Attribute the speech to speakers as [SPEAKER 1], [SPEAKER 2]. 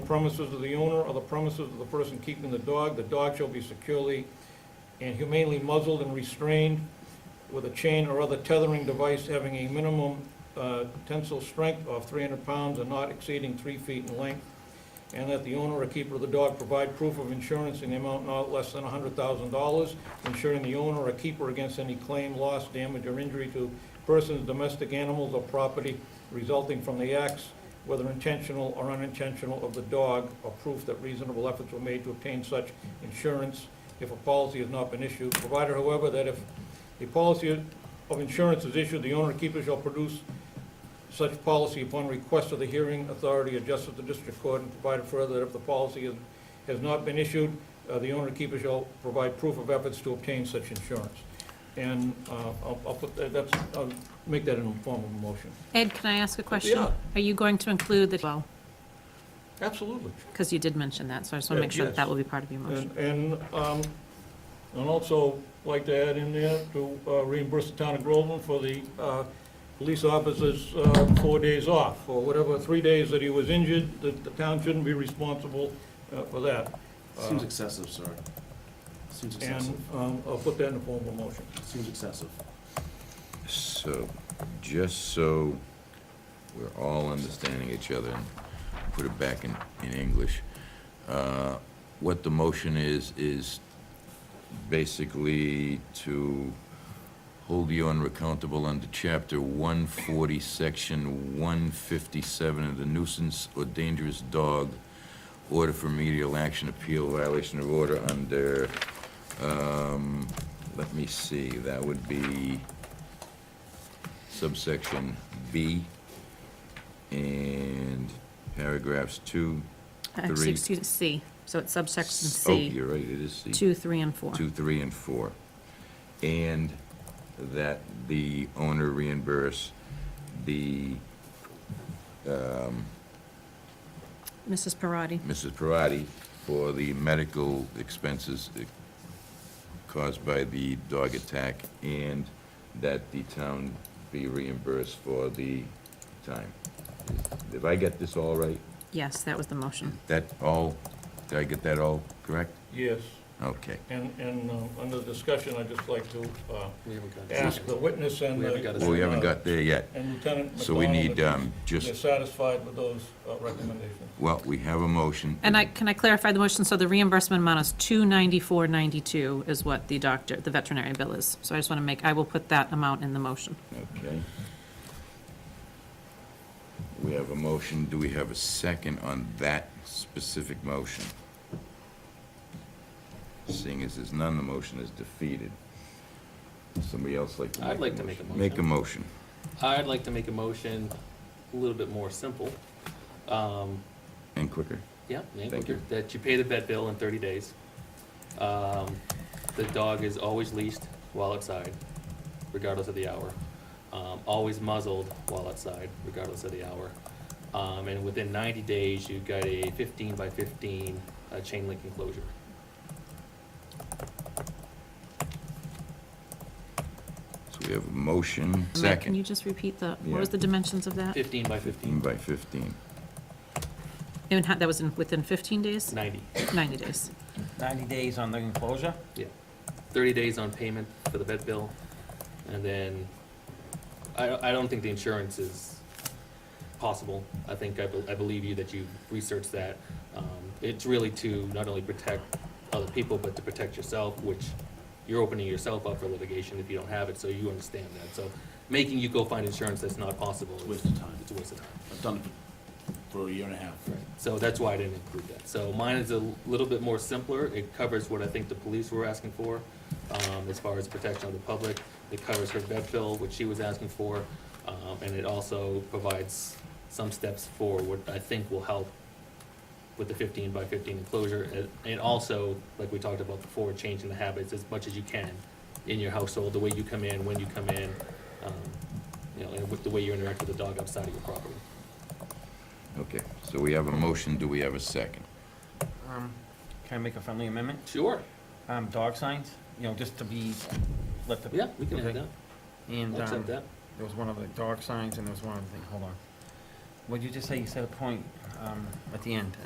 [SPEAKER 1] premises of the owner or the premises of the person keeping the dog. The dog shall be securely and humanely muzzled and restrained with a chain or other tethering device having a minimum uh, tensile strength of 300 pounds and not exceeding three feet in length, and that the owner or keeper of the dog provide proof of insurance in the amount not less than $100,000, insuring the owner or keeper against any claim, loss, damage, or injury to persons, domestic animals, or property resulting from the acts, whether intentional or unintentional, of the dog, or proof that reasonable efforts were made to obtain such insurance if a policy has not been issued, provided, however, that if a policy of insurance is issued, the owner or keeper shall produce such policy upon request of the hearing authority or justice of the district court, and provided further that if the policy is- has not been issued, uh, the owner or keeper shall provide proof of efforts to obtain such insurance. And uh, I'll I'll put, that- that's, I'll make that in a form of a motion.
[SPEAKER 2] Ed, can I ask a question?
[SPEAKER 1] Yeah.
[SPEAKER 2] Are you going to include the, well,
[SPEAKER 1] Absolutely.
[SPEAKER 2] because you did mention that, so I just want to
[SPEAKER 1] Yeah,
[SPEAKER 2] make sure that
[SPEAKER 1] yes.
[SPEAKER 2] that will be part of your motion.
[SPEAKER 1] And, and um, I'd also like to add in there to uh, reimburse the town of Groveland for the uh, police officer's uh, four days off, or whatever, three days that he was injured, that the town shouldn't be responsible uh, for that.
[SPEAKER 3] Seems excessive, sir. Seems
[SPEAKER 1] And
[SPEAKER 3] excessive.
[SPEAKER 1] um, I'll put that in the form of a motion.
[SPEAKER 3] Seems excessive.
[SPEAKER 4] So, just so we're all understanding each other and put it back in, in English, uh, what the motion is, is basically to hold you unrecountable under Chapter 140, Section 157 of the nuisance or dangerous dog order for remedial action appeal violation of order under, um, let me see, that would be subsection B, and paragraphs two,
[SPEAKER 2] Uh,
[SPEAKER 4] three.
[SPEAKER 2] Excuse me, C, so it's subsection
[SPEAKER 4] s- oh,
[SPEAKER 2] C,
[SPEAKER 4] you're right, it is C.
[SPEAKER 2] two, three, and four.
[SPEAKER 4] Two, three, and four. And that the owner reimburse the, um,
[SPEAKER 2] Mrs. Parati,
[SPEAKER 4] Mrs. Parati for the medical expenses eh, caused by the dog attack, and that the town be reimbursed for the time. Did I get this all right?
[SPEAKER 2] yes, that was the motion.
[SPEAKER 4] That all, did I get that all correct?
[SPEAKER 1] Yes,
[SPEAKER 4] Okay.
[SPEAKER 1] and, and um, under discussion, I'd just like to uh,
[SPEAKER 3] We haven't got
[SPEAKER 1] ask the witness and
[SPEAKER 3] We
[SPEAKER 1] the...
[SPEAKER 3] haven't got a-
[SPEAKER 4] Well, Oh, we haven't got there yet,
[SPEAKER 1] And Lieutenant
[SPEAKER 4] so we need,
[SPEAKER 1] McDonald,
[SPEAKER 4] um,
[SPEAKER 1] if they're
[SPEAKER 4] just,
[SPEAKER 1] satisfied with those uh, recommendations.
[SPEAKER 4] well, we have a motion.
[SPEAKER 2] And I, can I clarify the motion? So the reimbursement amount is two ninety-four ninety-two is what the doctor, the veterinary bill is. So I just want to make, I will put that amount in the motion.
[SPEAKER 4] Okay. We have a motion, do we have a second on that specific motion? Seeing as there's none, the motion is defeated. Somebody else like to make a
[SPEAKER 5] I'd
[SPEAKER 4] motion?
[SPEAKER 5] like to make a
[SPEAKER 4] Make a
[SPEAKER 5] motion.
[SPEAKER 4] motion.
[SPEAKER 5] I'd like to make a motion a little bit more simple. Um,
[SPEAKER 4] and quicker.
[SPEAKER 5] yeah, yeah,
[SPEAKER 4] Thank you.
[SPEAKER 5] that you pay the vet bill in thirty days. Um, the dog is always leashed while outside, regardless of the hour. Um, always muzzled while outside, regardless of the hour. Um, and within ninety days, you got a fifteen by fifteen, uh, chain link enclosure.
[SPEAKER 4] So we have a motion,
[SPEAKER 2] Matt, Can you
[SPEAKER 4] second,
[SPEAKER 2] just repeat the,
[SPEAKER 4] Yeah.
[SPEAKER 2] what was the dimensions of that?
[SPEAKER 5] Fifteen by
[SPEAKER 4] 15
[SPEAKER 5] fifteen,
[SPEAKER 4] by 15.
[SPEAKER 2] And how- that was in, within fifteen days?
[SPEAKER 5] ninety.
[SPEAKER 2] Ninety days.
[SPEAKER 6] 90 days on the enclosure?
[SPEAKER 5] thirty days on payment for the vet bill, and then, I, I don't think the insurance is possible. I think, I, bel- I believe you that you researched that. Um, it's really to not only protect other people, but to protect yourself, which you're opening yourself up for litigation if you don't have it, so you understand that. So making you go find insurance that's not possible
[SPEAKER 3] It's a
[SPEAKER 5] is,
[SPEAKER 3] waste of time.
[SPEAKER 5] it's a waste of time.
[SPEAKER 3] I've done it for a year and a half.
[SPEAKER 5] So that's why I didn't include that. So mine is a little bit more simpler. It covers what I think the police were asking for, um, as far as protection of the public. It covers her vet bill, which she was asking for, um, and it also provides some steps for what I think will help with the fifteen by fifteen enclosure. And- And also, like we talked about before, changing the habits as much as you can in your household, the way you come in, when you come in, um, you know, and with the way you interact with the dog outside of your property.
[SPEAKER 4] Okay, so we have a motion, do we have a second?
[SPEAKER 6] Um, Can I make a friendly amendment?
[SPEAKER 5] Sure,
[SPEAKER 6] Um, Dog signs, you know, just to be, let the.
[SPEAKER 5] yeah, we can add
[SPEAKER 6] Okay.
[SPEAKER 5] that.
[SPEAKER 6] And
[SPEAKER 5] I'll
[SPEAKER 6] um,
[SPEAKER 5] accept that.
[SPEAKER 6] there was one of the dog signs and there was one other thing, hold on. What'd you just say? You said a point um, at the end.